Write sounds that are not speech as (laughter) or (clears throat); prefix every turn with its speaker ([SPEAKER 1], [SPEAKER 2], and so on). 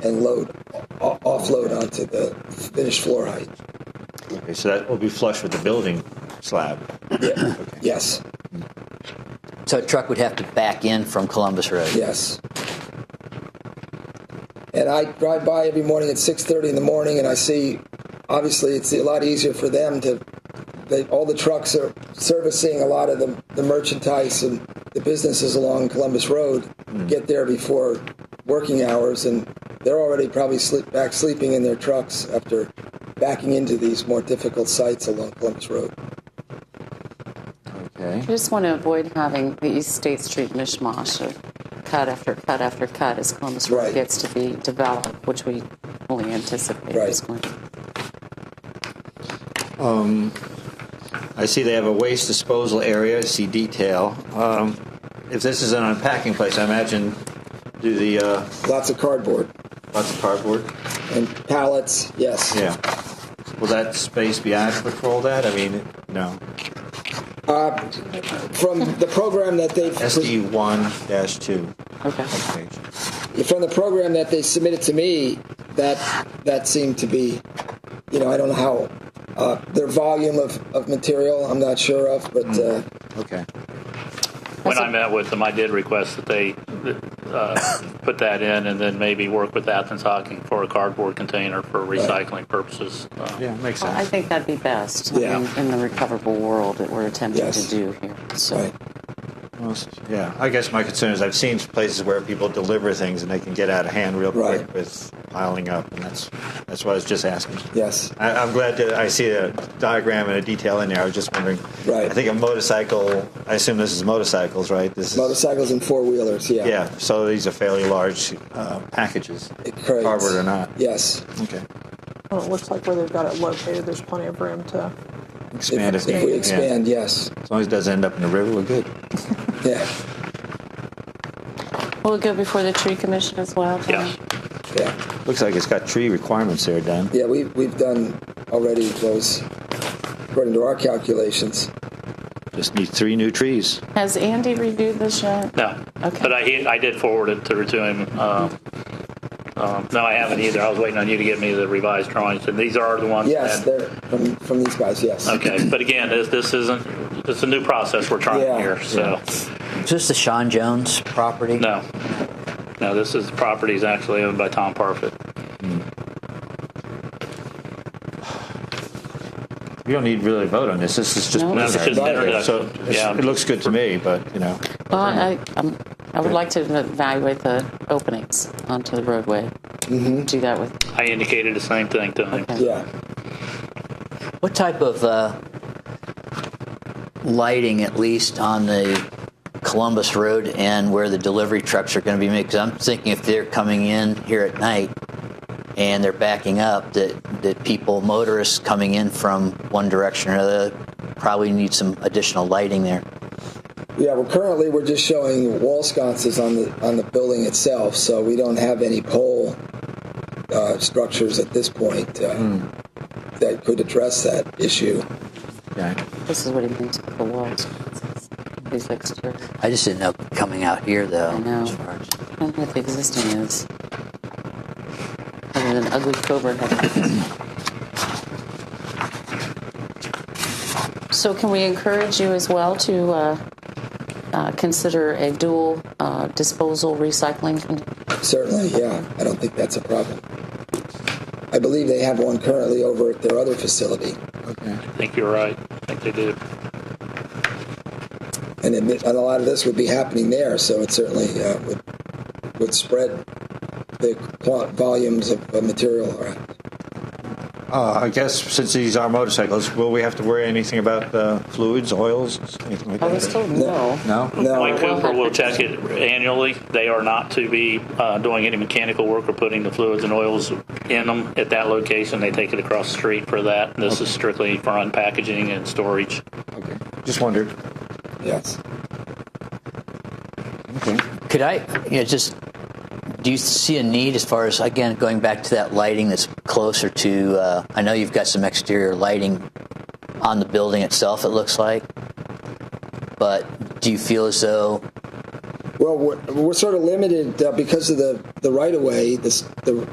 [SPEAKER 1] and load o- offload onto the finished floor height.
[SPEAKER 2] Okay, so that will be flush with the building slab.
[SPEAKER 1] Yeah. (clears throat) Yes,
[SPEAKER 3] So a truck would have to back in from Columbus Road.
[SPEAKER 1] yes. And I drive by every morning at 6:30 in the morning, and I see. Obviously, it's a lot easier for them to. They, all the trucks are servicing a lot of the, the merchandise and the businesses along Columbus Road. Get there before working hours, and they're already probably sleep, back sleeping in their trucks after backing into these more difficult sites along Columbus Road.
[SPEAKER 3] Okay.
[SPEAKER 4] I just want to avoid having the East State Street mishmash of cut after cut after cut as Columbus Road
[SPEAKER 1] Right.
[SPEAKER 4] gets to be developed, which we fully anticipate
[SPEAKER 1] Right.
[SPEAKER 4] is going to.
[SPEAKER 2] I see they have a waste disposal area. I see detail. Um, if this is an unpacking place, I imagine do the uh,
[SPEAKER 1] Lots of cardboard
[SPEAKER 2] lots of cardboard.
[SPEAKER 1] and pallets. Yes.
[SPEAKER 2] Yeah. Will that space be adequate for all that? I mean, no.
[SPEAKER 1] From the program that they've
[SPEAKER 2] SD one dash two.
[SPEAKER 4] Okay.
[SPEAKER 1] from the program that they submitted to me, that that seemed to be, you know, I don't know how uh, their volume of, of material I'm not sure of, but
[SPEAKER 2] Hmm.
[SPEAKER 1] uh,
[SPEAKER 2] Okay.
[SPEAKER 5] When I met with them, I did request that they uh, put that in and then maybe work with Athens Hocking for a cardboard container for recycling purposes. Uh,
[SPEAKER 2] Yeah, makes
[SPEAKER 4] Well, I
[SPEAKER 2] sense.
[SPEAKER 4] think that'd be best
[SPEAKER 1] Yeah.
[SPEAKER 4] in, in the recoverable world that we're attempting
[SPEAKER 1] Yes.
[SPEAKER 4] to do here. So
[SPEAKER 1] right.
[SPEAKER 2] Most- yeah, I guess my concern is I've seen places where people deliver things and they can get out of hand real
[SPEAKER 1] Right.
[SPEAKER 2] quick with piling up, and that's that's what I was just asking.
[SPEAKER 1] yes,
[SPEAKER 2] I, I'm glad that I see a diagram and a detail in there. I was just wondering.
[SPEAKER 1] Right.
[SPEAKER 2] I think a motorcycle. I assume this is motorcycles, right? This is
[SPEAKER 1] motorcycles and four wheelers. Yeah,
[SPEAKER 2] Yeah. So these are fairly large uh, packages,
[SPEAKER 1] It creates-
[SPEAKER 2] cardboard or not.
[SPEAKER 1] Yes,
[SPEAKER 2] Okay.
[SPEAKER 6] Well, it looks like where they've got it located, there's plenty of room to.
[SPEAKER 2] Expand
[SPEAKER 1] if,
[SPEAKER 2] if,
[SPEAKER 1] if
[SPEAKER 2] needed,
[SPEAKER 1] we
[SPEAKER 2] yeah.
[SPEAKER 1] expand, yes,
[SPEAKER 2] As long as it doesn't end up in the river, we're good.
[SPEAKER 1] yeah,
[SPEAKER 4] will it go before the tree commission as well? Tom?
[SPEAKER 5] Yeah.
[SPEAKER 1] yeah,
[SPEAKER 2] Looks like it's got tree requirements there, Dan.
[SPEAKER 1] yeah. We we've done already those according to our calculations.
[SPEAKER 2] Just need three new trees.
[SPEAKER 4] Has Andy reviewed this yet?
[SPEAKER 5] No.
[SPEAKER 4] Okay.
[SPEAKER 5] But I, he- I did forward it to, to him. Um, um, no, I haven't either. I was waiting on you to get me the revised drawings, and these are the ones.
[SPEAKER 1] Yes,
[SPEAKER 5] that-
[SPEAKER 1] they're from from these guys. Yes,
[SPEAKER 5] Okay, but again, this, this isn't. It's a new process we're trying
[SPEAKER 1] Yeah.
[SPEAKER 5] here, so
[SPEAKER 3] Is this the Sean Jones property?
[SPEAKER 5] no, no. This is the property is actually owned by Tom Parfit.
[SPEAKER 2] We don't need really to vote on this. This is just,
[SPEAKER 4] No, this
[SPEAKER 5] is just introduction.
[SPEAKER 2] So it's-
[SPEAKER 5] Yeah.
[SPEAKER 2] it looks good to me, but you know,
[SPEAKER 4] Well, I, i I would like to evaluate the openings onto the roadway.
[SPEAKER 1] Mm-hmm.
[SPEAKER 4] Do that with
[SPEAKER 5] I indicated the same thing to him.
[SPEAKER 1] yeah,
[SPEAKER 3] What type of uh, lighting, at least on the Columbus Road and where the delivery trucks are going to be? Because I'm thinking if they're coming in here at night and they're backing up, that that people, motorists coming in from one direction or another, probably need some additional lighting there.
[SPEAKER 1] yeah. Well, currently we're just showing wall sconces on the on the building itself, so we don't have any pole uh, structures at this point uh,
[SPEAKER 5] Hmm.
[SPEAKER 1] that could address that issue.
[SPEAKER 2] yeah.
[SPEAKER 4] this is what he means with the walls. These exteriors.
[SPEAKER 3] I just didn't know coming out here though.
[SPEAKER 4] I know.
[SPEAKER 3] as far as-
[SPEAKER 4] I don't know what the existing is. Other than ugly cobra head. So can we encourage you as well to uh, uh, consider a dual uh, disposal recycling? con-
[SPEAKER 1] Certainly, yeah. I don't think that's a problem. I believe they have one currently over at their other facility,
[SPEAKER 5] I think you're right. I think they do.
[SPEAKER 1] and, it, and a lot of this would be happening there, so it certainly uh, would would spread the quant- volumes of uh, material around.
[SPEAKER 2] Uh, I guess since these are motorcycles, will we have to worry anything about uh, fluids, oils, anything like
[SPEAKER 4] I
[SPEAKER 2] that?
[SPEAKER 4] was told no.
[SPEAKER 2] no.
[SPEAKER 1] No,
[SPEAKER 5] Mike Cooper will check it annually. They are not to be uh, doing any mechanical work or putting the fluids and oils in them at that location. They take it across the street for that. This is strictly for unpackaging and storage.
[SPEAKER 2] Okay. Just wondered.
[SPEAKER 1] yes.
[SPEAKER 2] Okay.
[SPEAKER 3] Could I, you know, just do you see a need as far as again going back to that lighting that's closer to? Uh, I know you've got some exterior lighting on the building itself. It looks like, but do you feel as though
[SPEAKER 1] Well, we're, we're sort of limited uh, because of the, the right of way. This the